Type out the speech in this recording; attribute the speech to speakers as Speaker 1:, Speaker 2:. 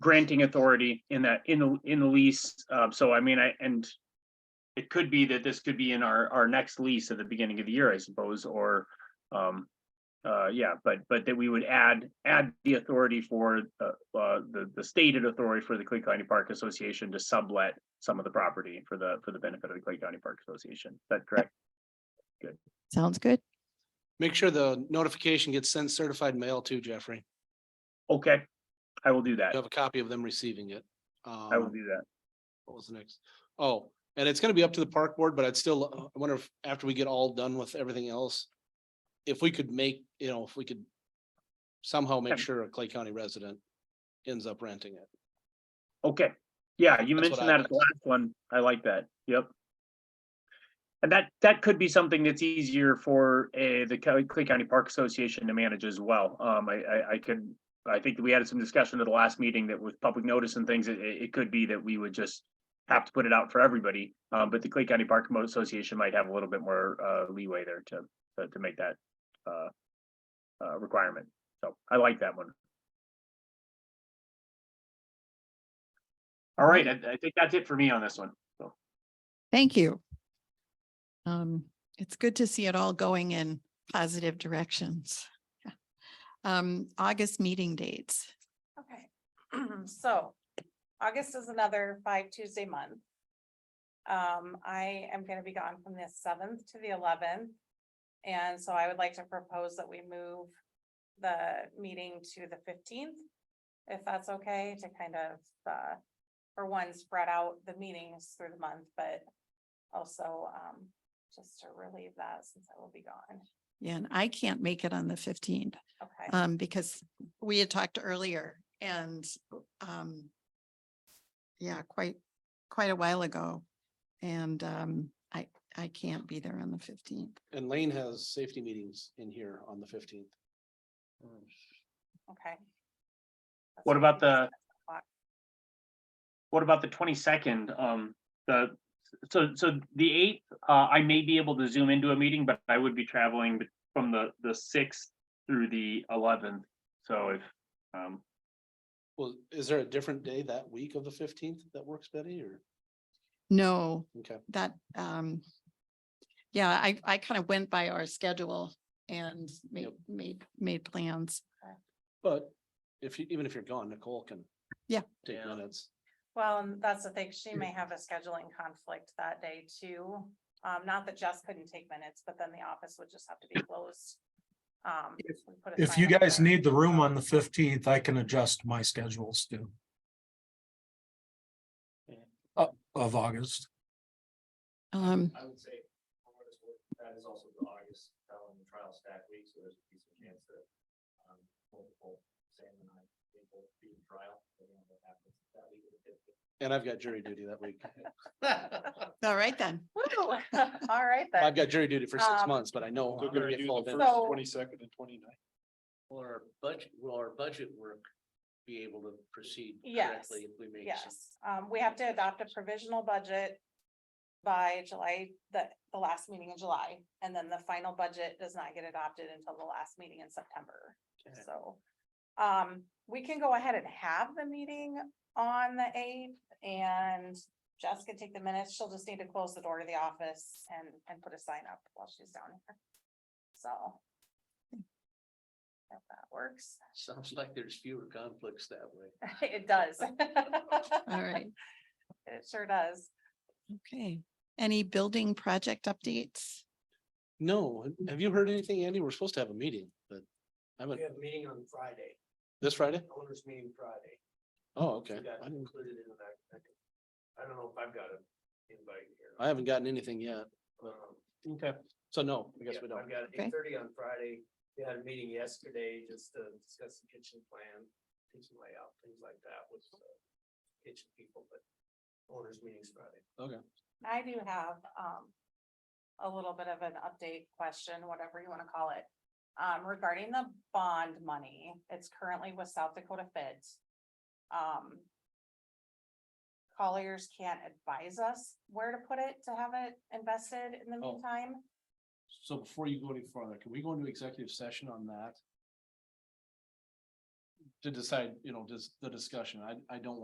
Speaker 1: granting authority in that, in the, in the lease. Uh, so I mean, I, and it could be that this could be in our, our next lease at the beginning of the year, I suppose, or, um, uh, yeah, but, but that we would add, add the authority for, uh, uh, the, the stated authority for the Clay County Park Association to sublet some of the property for the, for the benefit of the Clay County Park Association. Is that correct?
Speaker 2: Sounds good.
Speaker 3: Make sure the notification gets sent certified mail too, Jeffrey.
Speaker 1: Okay, I will do that.
Speaker 3: You have a copy of them receiving it.
Speaker 1: I will
Speaker 3: Um,
Speaker 1: do that.
Speaker 3: What was the next? Oh, and it's gonna be up to the park board, but I'd still, uh, I wonder if after we get all done with everything else. If we could make, you know, if we could somehow make
Speaker 1: Yeah.
Speaker 3: sure a Clay County resident ends up renting it.
Speaker 1: Okay, yeah, you
Speaker 3: That's what
Speaker 1: mentioned
Speaker 3: I
Speaker 1: that at the last one. I like that. Yep. And that, that could be something that's easier for uh the Cal- Clay County Park Association to manage as well. Um, I, I, I could. I think we had some discussion at the last meeting that with public notice and things, it, it it could be that we would just have to put it out for everybody. Um, but the Clay County Park Mo- Association might have a little bit more, uh, leeway there to, to- to make that, uh, uh, requirement. So I like that one. All right, I, I think that's it for me on this one. So,
Speaker 2: Thank you. Um, it's good to see it all going in positive directions. Yeah. Um, August meeting dates.
Speaker 4: Okay, so August is another five Tuesday month. Um, I am gonna be gone from the seventh to the eleventh. And so I would like to propose that we move the meeting to the fifteenth. If that's okay to kind of, uh, for one, spread out the meetings through the month, but also, um, just to relieve that since I will be gone.
Speaker 2: Yeah, and I can't make it on the fifteenth,
Speaker 1: Uh,
Speaker 4: Okay,
Speaker 2: um, because we had talked earlier and, um, yeah, quite, quite a while ago. And, um, I, I can't be there on the fifteenth.
Speaker 3: And Lane has safety meetings in here on the fifteenth.
Speaker 1: Oh,
Speaker 4: okay. That's
Speaker 1: What about the-
Speaker 4: O'clock.
Speaker 1: what about the twenty-second? Um, the, so, so the eighth, uh, I may be able to zoom into a meeting, but I would be traveling be- from the, the sixth through the eleventh. So if, um,
Speaker 3: Well, is there a different day that week of the fifteenth that works, Betty, or?
Speaker 2: No,
Speaker 3: Okay,
Speaker 2: that, um, yeah, I, I kind of went by our schedule and made,
Speaker 3: Yep.
Speaker 2: made, made plans.
Speaker 3: but if you, even if you're gone, Nicole can.
Speaker 2: Yeah.
Speaker 3: Take
Speaker 1: Yeah.
Speaker 3: minutes.
Speaker 4: Well, and that's the thing, she may have a scheduling conflict that day too. Um, not that Jess couldn't take minutes, but then the office would just have to be closed. Um,
Speaker 5: If-
Speaker 4: we put a
Speaker 5: If
Speaker 4: sign
Speaker 5: you
Speaker 4: up
Speaker 5: guys
Speaker 4: there.
Speaker 5: need the room on the fifteenth, I can adjust my schedules too. Uh, of August.
Speaker 2: Um,
Speaker 6: I would say, from what it's worth, that is also the August trial and trial stack week, so there's a decent chance that um, multiple Sam and I think will be in trial. depending on what happens that week of the 15th.
Speaker 3: And I've got jury duty that week.
Speaker 2: all right then.
Speaker 4: Woo! All right
Speaker 3: I've
Speaker 4: then.
Speaker 3: got jury duty for six
Speaker 4: Um,
Speaker 3: months, but I know. I'm gonna get full benefits.
Speaker 4: So-
Speaker 7: twenty-second and 29th.
Speaker 8: Will our budget, will our budget work be able to proceed
Speaker 4: Yes,
Speaker 8: correctly if we make some?
Speaker 4: Yes, um, we have to adopt a provisional budget by July, the, the last meeting in July. And then the final budget does not get adopted until the last meeting in September.
Speaker 8: Okay.
Speaker 4: So, um, we can go ahead and have the meeting on the eighth and Jess can take the minutes. She'll just need to close the door to the office and, and put a sign up while she's down here. So. If that works,
Speaker 8: Sounds like there's fewer conflicts that way.
Speaker 4: it does.
Speaker 2: All right.
Speaker 4: It sure does.
Speaker 2: Okay. Any building project updates?
Speaker 3: No, have you heard anything, Andy? We're supposed to have a meeting, but I haven't,
Speaker 6: We have a meeting on Friday,
Speaker 3: this Friday?
Speaker 6: owners meeting Friday.
Speaker 3: Oh, okay.
Speaker 6: We got
Speaker 3: I didn't-
Speaker 6: included in that. I don't know if I've got an invite here.
Speaker 3: I haven't gotten anything yet.
Speaker 6: Um,
Speaker 3: Okay. So no, I guess
Speaker 6: yeah,
Speaker 3: we don't.
Speaker 6: I've got
Speaker 2: Okay.
Speaker 6: eight thirty on Friday. We had a meeting yesterday just to discuss the kitchen plan, kitchen layout, things like that with uh, kitchen people, but owners meetings Friday.
Speaker 4: I do have, um, a little bit of an update question, whatever you wanna call it. Um, regarding the bond money, it's currently with South Dakota Fed. Um. Colliers can't advise us where to put it to have it invested in the
Speaker 3: Oh.
Speaker 4: meantime.
Speaker 3: So before you go any further, can we go into executive session on that? to decide, you know, just the discussion. I, I don't